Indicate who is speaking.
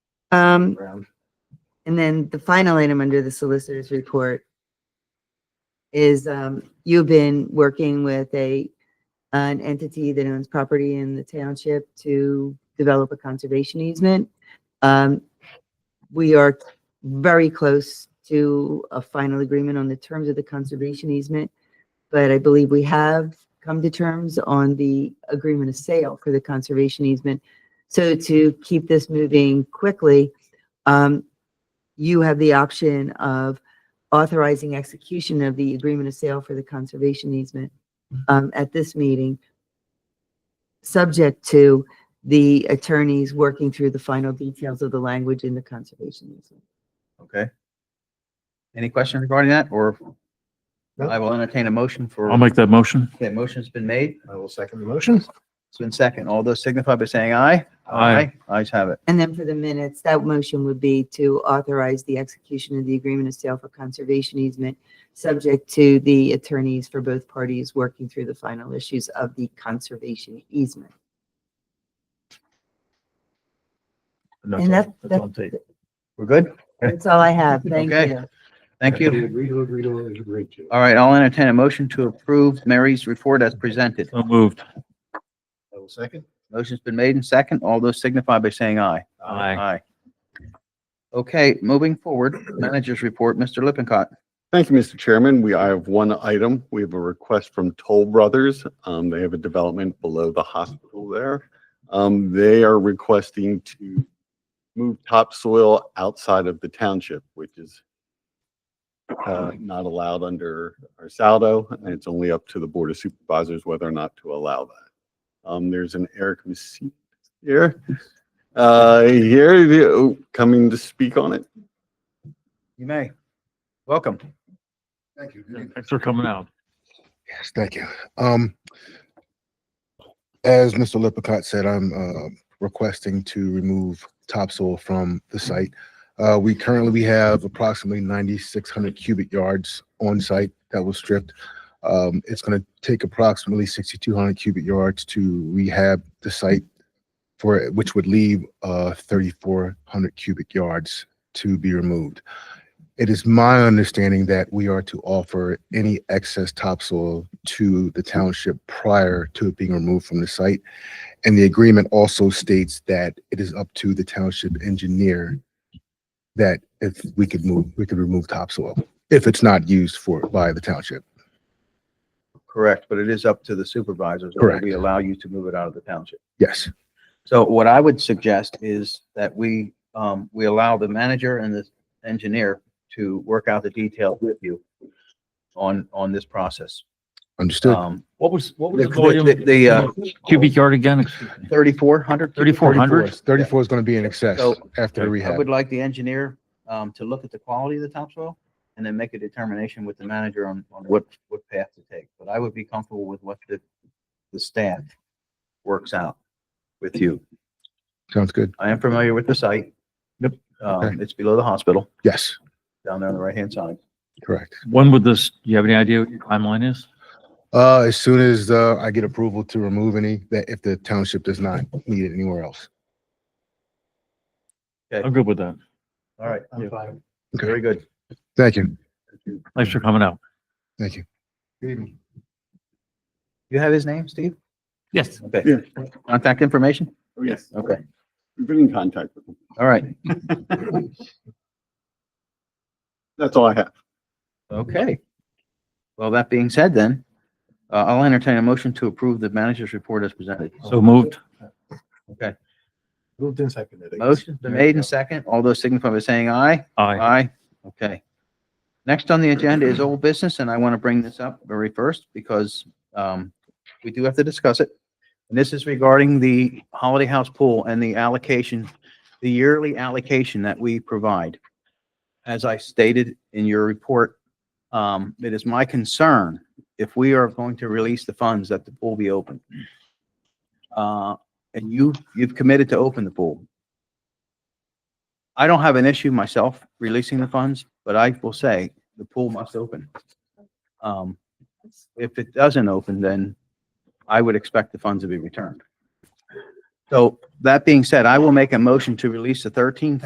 Speaker 1: Um,
Speaker 2: Brown.
Speaker 1: and then the final item under the solicitor's report is, um, you've been working with a, an entity that owns property in the township to develop a conservation easement. Um, we are very close to a final agreement on the terms of the conservation easement, but I believe we have come to terms on the agreement of sale for the conservation easement. So to keep this moving quickly, um, you have the option of authorizing execution of the agreement of sale for the conservation easement um, at this meeting, subject to the attorneys working through the final details of the language in the conservation easement.
Speaker 3: Okay. Any question regarding that or
Speaker 2: No.
Speaker 3: I will entertain a motion for.
Speaker 4: I'll make that motion.
Speaker 3: Okay, motion's been made.
Speaker 2: I will second the motion.
Speaker 3: It's been second. All those signify by saying aye.
Speaker 4: Aye.
Speaker 3: Ayes have it.
Speaker 1: And then for the minutes, that motion would be to authorize the execution of the agreement of sale for conservation easement, subject to the attorneys for both parties working through the final issues of the conservation easement.
Speaker 2: That's
Speaker 1: And
Speaker 2: all-
Speaker 1: that-
Speaker 2: that's all I'm taking.
Speaker 3: We're good?
Speaker 1: That's all I have. Thank
Speaker 3: Okay.
Speaker 1: you.
Speaker 3: Thank you.
Speaker 2: Agree to, agree to, agree to.
Speaker 3: All right, I'll entertain a motion to approve Mary's report as presented.
Speaker 4: So moved.
Speaker 2: I will second.
Speaker 3: Motion's been made and second. All those signify by saying aye. Aye. Okay, moving forward, managers report, Mr. Lippincott.
Speaker 5: Thank you, Mr. Chairman. We, I have one item. We have a request from Toll Brothers. Um, they have a development below the hospital there. Um, they are requesting to move topsoil outside of the township, which is uh, not allowed under our saldo, and it's only up to the Board of Supervisors whether or not to allow that. Um, there's an Eric Messina here, uh, here, the- oh, coming to speak on it.
Speaker 3: You may. Welcome.
Speaker 6: Thank you.
Speaker 4: Thanks for coming out.
Speaker 6: Yes, thank you. Um, as Mr. Lippincott said, I'm, uh, requesting to remove topsoil from the site. Uh, we currently, we have approximately ninety-six hundred cubic yards on site that was stripped. Um, it's gonna take approximately sixty-two hundred cubic yards to rehab the site for, which would leave, uh, thirty-four hundred cubic yards to be removed. It is my understanding that we are to offer any excess topsoil to the township prior to it being removed from the site. And the agreement also states that it is up to the township engineer that if we could move, we could remove topsoil if it's not used for, by the township.
Speaker 3: Correct, but it is up to the supervisors. whether
Speaker 6: Correct.
Speaker 3: We allow you to move it out of the township.
Speaker 6: Yes,
Speaker 3: So what I would suggest is that we, um, we allow the manager and the engineer to work out the details with you on, on this process.
Speaker 6: understood.
Speaker 3: Um,
Speaker 4: What was, what
Speaker 3: the, the- the, uh,
Speaker 4: Cubic yard again, excuse me.
Speaker 3: thirty-four hundred?
Speaker 4: 3,400?
Speaker 6: Thirty-four is gonna be in excess
Speaker 3: So,
Speaker 6: after the
Speaker 3: I
Speaker 6: rehab.
Speaker 3: would like the engineer, um, to look at the quality of the topsoil and then make a determination with the manager on, on what, what path to take. But I would be comfortable with what the, the staff works out with you.
Speaker 6: Sounds good.
Speaker 3: I am familiar with the site.
Speaker 4: Yep.
Speaker 3: Um,
Speaker 6: Okay.
Speaker 3: it's below the hospital,
Speaker 6: Yes,
Speaker 3: down there on the right-hand side.
Speaker 6: correct.
Speaker 4: When would this, do you have any idea what your timeline is?
Speaker 6: Uh, as soon as, uh, I get approval to remove any, that if the township does not need it anywhere else.
Speaker 4: I'm good with that.
Speaker 3: All right,
Speaker 2: I'm fine.
Speaker 3: very good.
Speaker 6: Thank you.
Speaker 4: Thanks for coming out.
Speaker 6: Thank you.
Speaker 3: You have his name, Steve?
Speaker 4: Yes.
Speaker 5: Yeah.
Speaker 3: Okay. Contact information?
Speaker 5: Yes.
Speaker 3: Okay,
Speaker 5: We've been in contact with them.
Speaker 3: all right.
Speaker 5: That's all I have.
Speaker 3: Okay. Well, that being said then, uh, I'll entertain a motion to approve the manager's report as presented.
Speaker 4: So moved.
Speaker 2: Moved and seconded.
Speaker 3: Motion's been made and second. All those signify by saying aye.
Speaker 4: Aye.
Speaker 3: Aye. Okay. Next on the agenda is old business, and I want to bring this up very first because um, we do have to discuss it. And this is regarding the Holiday House pool and the allocation, the yearly allocation that we provide. As I stated in your report, um, it is my concern if we are going to release the funds that the pool be open. Uh, And you, you've committed to open the pool. I don't have an issue myself releasing the funds, but I will say the pool must open. Um, if it doesn't open, then I would expect the funds to be returned. So that being said, I will make a motion to release the thirteen